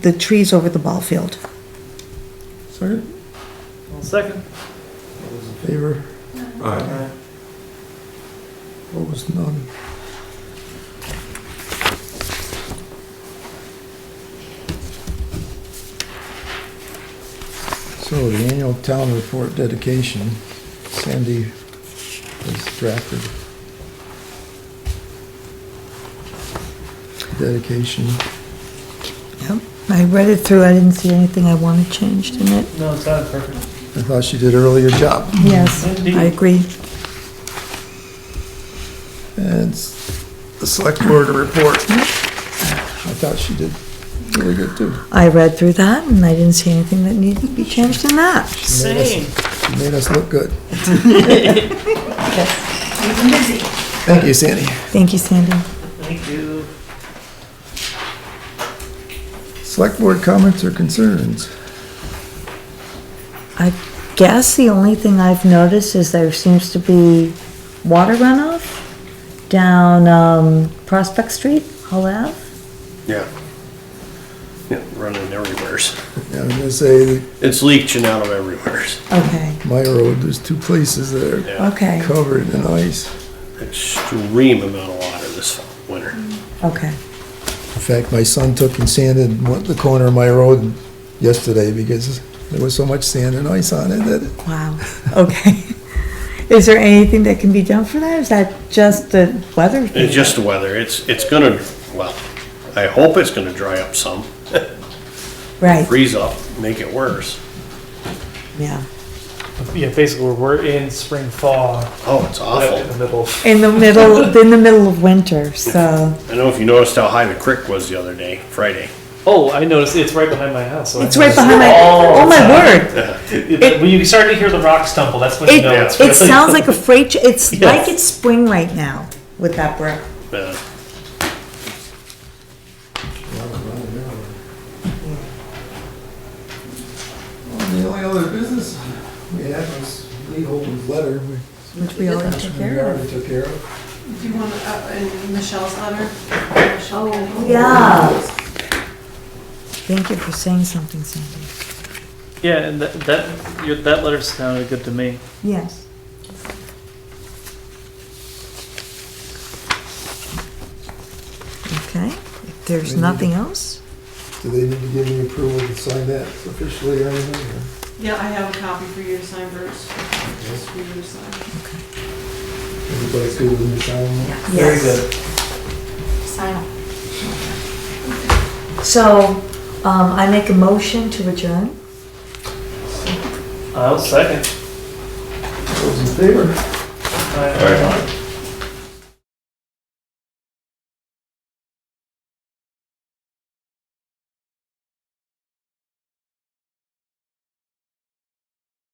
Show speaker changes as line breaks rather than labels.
the trees over the ball field.
Second,
I'll second.
all those in favor,
Aye.
opposed, none. So the annual town report dedication, Sandy has drafted. Dedication,
Yep, I read it through, I didn't see anything I wanted changed in it.
No, it's not perfect.
I thought she did a really good job.
Yes, I
Indeed.
agree.
And s- the select board report, I thought she did really good too.
I read through that and I didn't see anything that needed to be changed in that.
Same.
You made us look good. Thank you, Sandy.
Thank you, Sandy.
Thank you.
Select board comments or concerns?
I guess the only thing I've noticed is there seems to be water runoff down, um, Prospect Street, Hull Ave.
Yeah. Yeah, running everywheres.
Yeah, I'm gonna say that
It's leaching out of everywheres.
Okay,
my road, there's two places that
Yeah.
okay,
are covered in ice.
Extreme amount of water this winter.
okay.
In fact, my son took and sanded one- the corner of my road yesterday because there was so much sand and ice on it that it-
Wow, okay. Is there anything that can be done for that? Is that just the weather? thing?
It's just the weather. It's, it's gonna, well, I hope it's gonna dry up some,
Right,
freeze up, make it worse.
yeah.
Yeah, basically, we're, we're in spring thaw
Oh, it's
right in the
awful.
middle.
In the middle, in the middle of winter, so
I don't know if you noticed how high the creek was the other day, Friday.
Oh, I noticed it's right behind my house. So I
it's right behind my,
Oh.
oh my word.
It, it- when you start to hear the rocks tumble, that's when you
It,
know it's
it
really.
sounds like a freight, tr- it's
Yes.
like it's spring right now with that brick.
Uh,
The only other business we had was Lee Holden's letter.
Which we already took care of.
already took care of.
Do you want, uh, in Michelle's letter? Oh,
Yeah. Thank you for saying something, Sandy.
yeah, and that that, your, that letter sounded good to me.
Yes. Okay, if
We
there's
need
nothing else,
Do they need to give me approval to sign that officially or anything? or?
Yeah, I have a copy for you to sign, Bruce. Just for you to sign.
Everybody's good with the sign?
Very Yes. good. so, um, I make a motion to adjourn.
I'll second.
Those in favor?
All right.